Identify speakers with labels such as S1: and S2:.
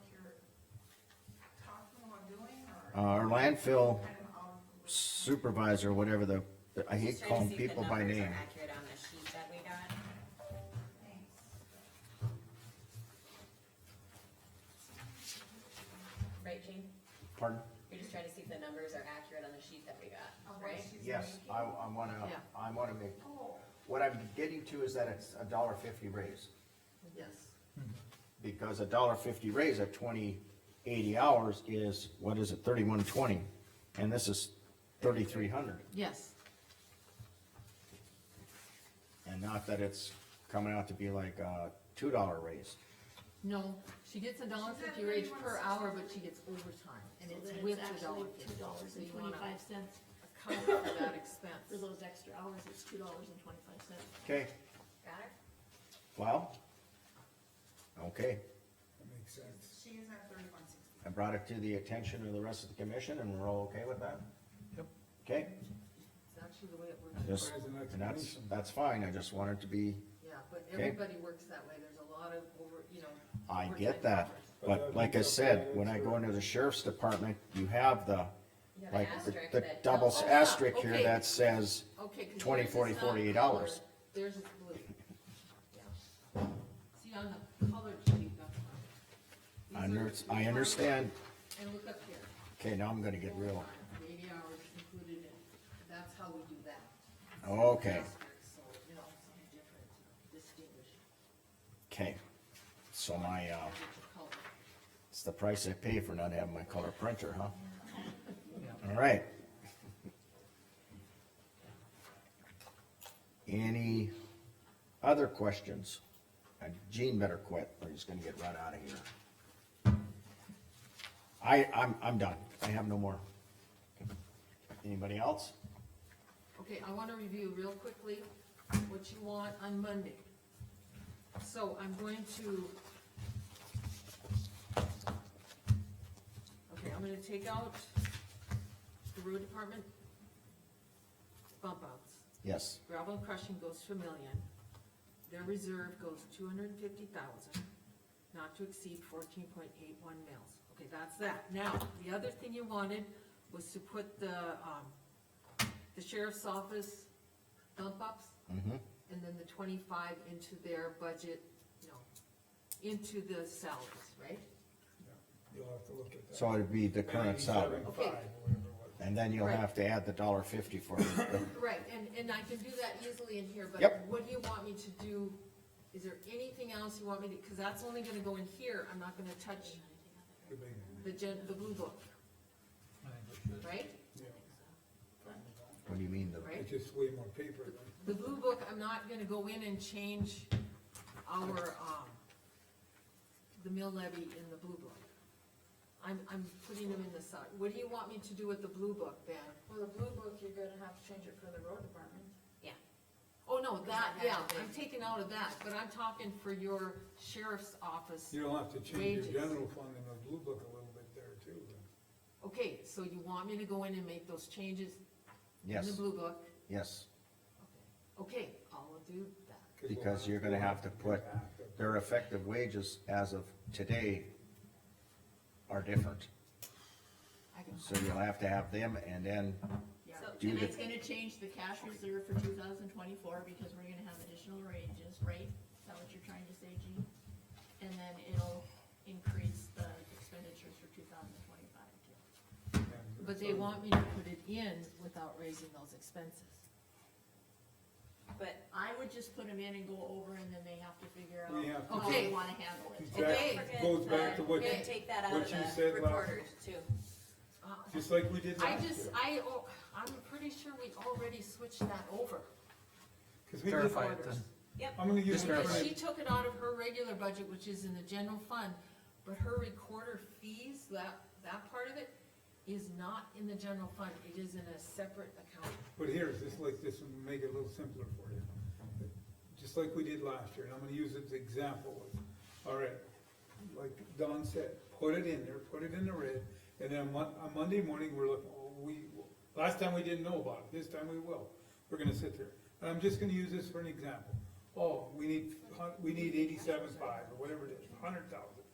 S1: uh, our landfill supervisor, whatever the, I hate
S2: Just trying to
S1: calling
S2: see if the
S1: people by
S2: numbers are
S1: name.
S2: Accurate on the sheet that we got. Right, Jean?
S1: Pardon?
S2: You're just trying to see if the numbers are accurate on the sheet that we got, right?
S1: Yes, I, I wanna,
S2: Yeah.
S1: I wanna make, what I'm getting to is that it's a dollar fifty raise.
S2: Yes.
S1: Because a dollar fifty raise at twenty, eighty hours is, what is it, thirty-one twenty? And this is thirty-three hundred,
S3: Yes,
S1: and not that it's coming out to be like a two dollar raise.
S3: no, she gets a dollar fifty raise per hour, but she gets overtime, and
S4: So
S3: it's
S4: then
S3: with
S4: it's
S3: the dollar
S4: actually
S3: fifty.
S4: two dollars
S3: So
S4: and
S3: you wanna
S4: twenty-five cents.
S3: Account for that
S4: For
S3: expense.
S4: those extra hours, it's two dollars and twenty-five cents.
S1: Okay,
S2: Got it?
S1: well, okay,
S5: Makes sense.
S6: She is at thirty-one sixty.
S1: I brought it to the attention of the rest of the commission, and we're all okay with that? Yep. Okay,
S3: It's actually the way it works.
S1: just,
S5: As an
S1: and that's,
S5: explanation.
S1: that's fine, I just wanted to be,
S3: Yeah, but
S1: Okay.
S3: everybody works that way, there's a lot of over, you know.
S1: I
S3: overtime
S1: get that,
S3: hours.
S1: but like I said, when I go into the sheriff's department, you have the,
S2: You have an
S1: like, the-
S2: asterisk
S1: the
S2: that
S1: double
S2: tells-
S3: Oh, yeah,
S1: asterisk here
S3: okay.
S1: that says,
S3: Okay. 'cause
S1: 20,
S3: yours is
S1: 40,
S3: not
S1: 48
S3: colored.
S1: hours.
S3: Theirs is blue. Yeah. See, on the colored sheet, that's not.
S1: I
S3: These are-
S1: under, I understand,
S3: And look up here.
S1: okay, now I'm gonna get real,
S3: Overtime, the Eighty hours included in, that's how we do that.
S1: okay,
S3: Asterisk, So, you know, something different, distinguished,
S1: okay. So my, uh,
S3: which color.
S1: it's the price I pay for not having my color printer, huh? All right. Any other questions? Uh, Gene better quit, or he's gonna get run out of here. I, I'm, I'm done, I have no more. Anybody else?
S3: Okay, I wanna review real quickly what you want on Monday. So I'm going to. Okay, I'm gonna take out the road department bump outs.
S1: Yes,
S3: Gravel and crushing goes to a million. Their reserve goes two hundred and fifty thousand, not to exceed fourteen point eight one mils. Okay, that's that. Now, the other thing you wanted was to put the, um, the sheriff's office dump ups
S1: mm-hmm,
S3: and then the twenty-five into their budget, no, into the salaries, right?
S5: You'll have to look at that.
S1: so it'd be the current salary,
S5: 97.5,
S3: Okay.
S5: whatever it was.
S1: and then you'll have to add the dollar fifty for it.
S3: Right, and, and I can do that easily in here, but
S1: Yep.
S3: what do you want me to do? Is there anything else you want me to, because that's only gonna go in here, I'm not gonna touch
S5: Could be,
S3: the gen, the blue book, right?
S5: you know,
S1: What do you mean, the,
S3: Right?
S5: It's just way more paper than.
S3: The blue book, I'm not gonna go in and change our, um, the mill levy in the blue book. I'm, I'm putting them in the side, what do you want me to do with the blue book then?
S7: Well, the blue book, you're gonna have to change it for the road department.
S3: Oh, no, that,
S7: that
S3: yeah,
S7: big?
S3: I'm taking out of that, but I'm talking for your sheriff's office.
S5: You'll have to change
S3: Wages.
S5: your general fund and the blue book a little bit there too. then.
S3: Okay, so you want me to go in and make those changes in the
S1: yes,
S3: blue book?
S1: yes,
S3: Okay, I'll do that.
S5: 'Cause we'll
S1: because you're gonna
S5: we'll
S1: have to put,
S5: get back to-
S1: their effective wages as of today are different.
S3: I can,
S1: So you'll have to have them and then,
S4: Yeah.
S1: Do
S4: And
S1: the-
S4: it's gonna change the cash reserve for two thousand twenty-four because we're gonna have additional ranges, right? Is that what you're trying to say, Gene? And then it'll increase the expenditures for two thousand twenty-five too.
S5: and
S3: but they
S5: so-
S3: want me to put it in without raising those expenses.
S2: But
S4: I would just put them in and go over and then they have to figure out
S5: We have to
S4: how
S3: Okay.
S4: they wanna handle it.
S5: That
S2: Okay.
S5: Goes back to what,
S2: we're gonna
S5: you-
S2: take that out
S5: what
S2: of
S5: you said
S2: the
S5: last-
S2: recorder's too.
S3: Uh,
S5: just like we did
S3: I
S5: last
S3: just,
S5: year.
S3: I, oh, I'm pretty sure we already switched that over.
S5: 'Cause we did-
S8: Clarify it then.
S5: I'm gonna use.
S8: Just
S5: my
S3: Because
S8: clarify.
S5: friend-
S3: she took it out of her regular budget, which is in the general fund, but her recorder fees, that, that part of it is not in the general fund, it is in a separate account.
S5: But here's, just like this, one, make it a little simpler for you. Just like we did last year, and I'm gonna use it as an example. All right, like Don said, put it in there, put it in the red, and then on, on Monday morning, we're looking, oh, we, last time we didn't know about it, this time we will. We're gonna sit there. And I'm just gonna use this for an example. Oh, we need, hun- we need eighty-seven five, or whatever it is, hundred thousand.